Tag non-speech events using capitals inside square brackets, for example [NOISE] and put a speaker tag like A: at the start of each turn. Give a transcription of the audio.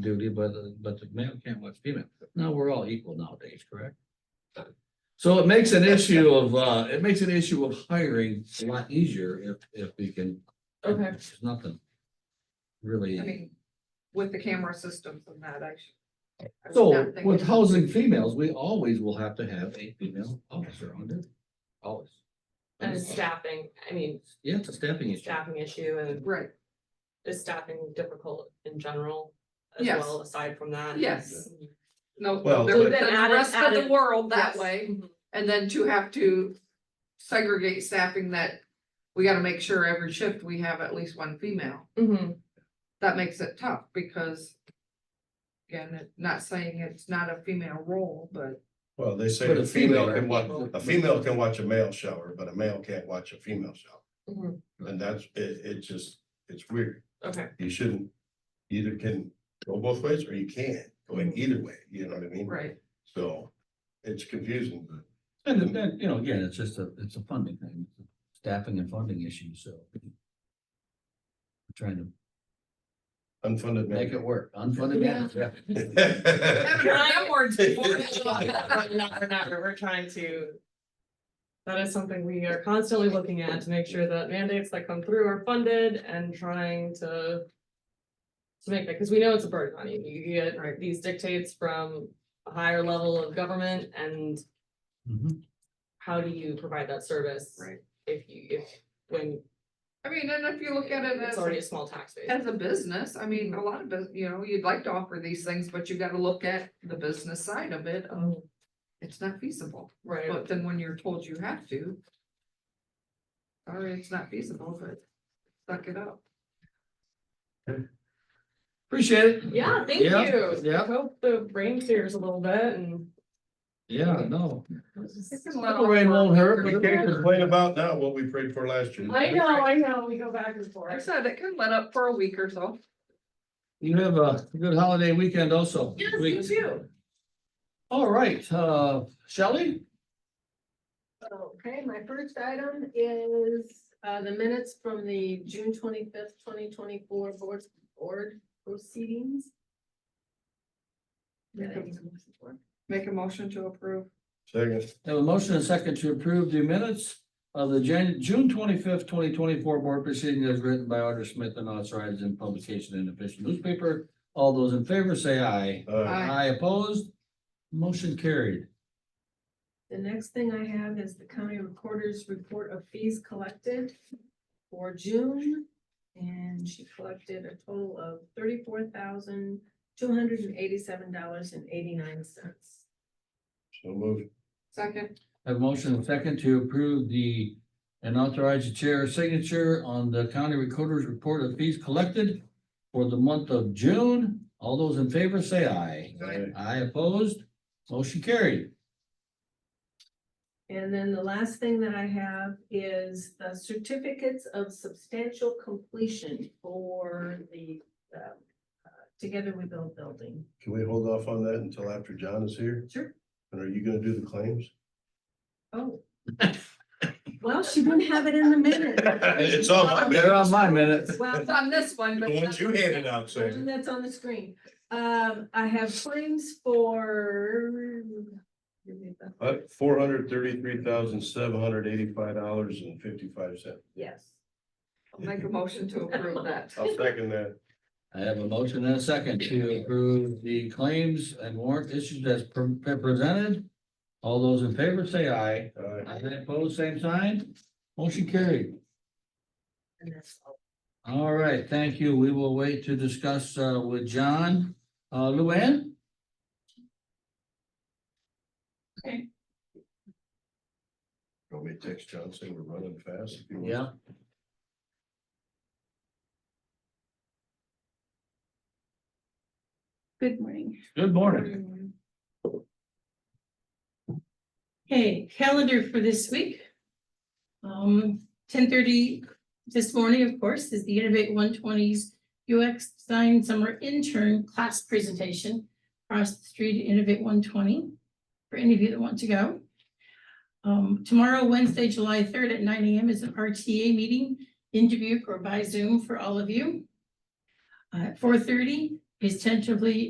A: duty, but, the- but the male can't watch female. Now, we're all equal nowadays, correct? So it makes an issue of, uh, it makes an issue of hiring a lot easier if, if we can.
B: Okay.
A: There's nothing
B: I
A: really.
B: mean, with the camera systems and that, I should. I was not
A: So
B: thinking-
A: with housing females, we always will have to have a female officer on duty, always. uh,
C: And staffing, I mean,
A: Yeah, it's a staffing Mm. issue.
C: staffing issue and
B: Right,
C: is staffing difficult in general as
B: Yes.
C: well, aside from that?
B: Yes. no,
D: Well-
B: there
C: So
B: would
C: then
B: then
C: add it-
B: the rest
C: add
B: of the
C: it-
B: world that
C: yes.
B: way,
C: Mhm.
B: and then to have to segregate staffing that. We gotta make sure every shift we have at least one female,
C: Mhm.
B: that makes it tough, because. Again, it- not saying it's not a female role, but
D: Well, they say
A: But
D: a female can watch,
A: female-
D: a female can watch a male shower, but a male can't watch a female shower.
C: Mhm.
D: And that's, it, it just, it's weird.
C: Okay,
D: You shouldn't, either can go both ways or you can't go in either way, you know what I mean?
B: right,
D: So it's confusing, but
A: And then, you know, again, it's just a, it's a funding thing, It's a staffing and funding issue, so. we're Trying to
D: unfunded.
A: make
D: [LAUGHS]
A: it work, unfunded mandate,
D: mandate.
C: Trying- [LAUGHS]
B: words before.
C: We're not- we're not- we're trying to. That is something we are constantly looking at to make sure that mandates that come through are funded and trying to. To make that, because we know it's a burden on you, you get
B: Right.
C: these dictates from a higher level of government and
A: Mhm.
C: how do you provide that service?
B: Right.
C: If you, if, when
B: I mean, and if you look at it as.
C: it's already a small tax base.
B: As a business, I mean, a lot of, bus- you know, you'd like to offer these things, but you gotta look at the business side of it, um,
C: Mhm.
B: it's not feasible.
C: Right,
B: But then when you're told you have to. Sorry, it's not feasible, but suck it up.
A: Appreciate it.
C: yeah, thank you.
A: Yeah, yeah.
C: I Hope the rain clears a little bit and.
A: Yeah, no.
B: Well,
A: Little rain won't hurt.
D: We can't complain about now what we prayed for last year.
C: I know, I know, we go back and
B: Like I
C: forth.
B: said, it can let up for a week or so.
A: You have a good holiday weekend also.
C: Yes,
A: Week-
C: you too.
A: All right, uh, Shelley?
E: Okay, my first item is uh the minutes from the June twenty-fifth, twenty twenty-four board, board proceedings. Did I get a motion for it?
B: Make a motion to approve.
D: Second,
A: Have a motion and second to approve the minutes of the Jan- June twenty-fifth, twenty twenty-four board proceeding as written by Arthur Smith and authorized in publication in official newspaper. All those in favor say aye.
D: uh,
B: Aye.
A: Aye opposed, motion carried.
E: The next thing I have is the county recorder's report of fees collected for June. And she collected a total of thirty-four thousand, two hundred and eighty-seven dollars and eighty-nine cents.
D: so move.
B: Second,
A: Have a motion and second to approve the and authorize the chair's signature on the county recorder's report of fees collected for the month of June. All those in favor say aye.
D: Aye.
A: Aye opposed, motion carried.
E: And then the last thing that I have is the certificates of substantial completion for the, um, uh, Together We Build building.
D: Can we hold off on that until after John is here?
E: Sure.
D: And are you gonna do the claims?
E: Oh. Well, she didn't have it in the minute.
D: It's on my minute.
A: They're on my minute.
E: Well,
B: it's on this one, but.
D: out,
E: the one That's on the screen. Um, I have claims for.
D: But four hundred thirty-three thousand, seven hundred eighty-five dollars and fifty-five cents.
E: Yes.
B: Make a motion to approve that.
D: I'll second that.
A: I have a motion and a second to approve the claims and warrant issued as pre- presented. All those in favor say aye.
D: All right.
A: Aye opposed, same sign, motion carried.
E: And that's all.
A: All right, thank you. We will wait to discuss uh with John. Uh, Luann?
D: Want me to text John, say we're running fast? if you want?
F: Good morning.
A: Good morning.
F: Okay, calendar for this week. Um, ten thirty this morning, of course, is the Innovate one twenties UX Design Summer Intern Class Presentation across the street, at Innovate one twenty, for any of you that want to go. Um, tomorrow, Wednesday, July third at nine AM is an RTA meeting in Dubuque or by Zoom for all of you. Uh, At four thirty, is tentatively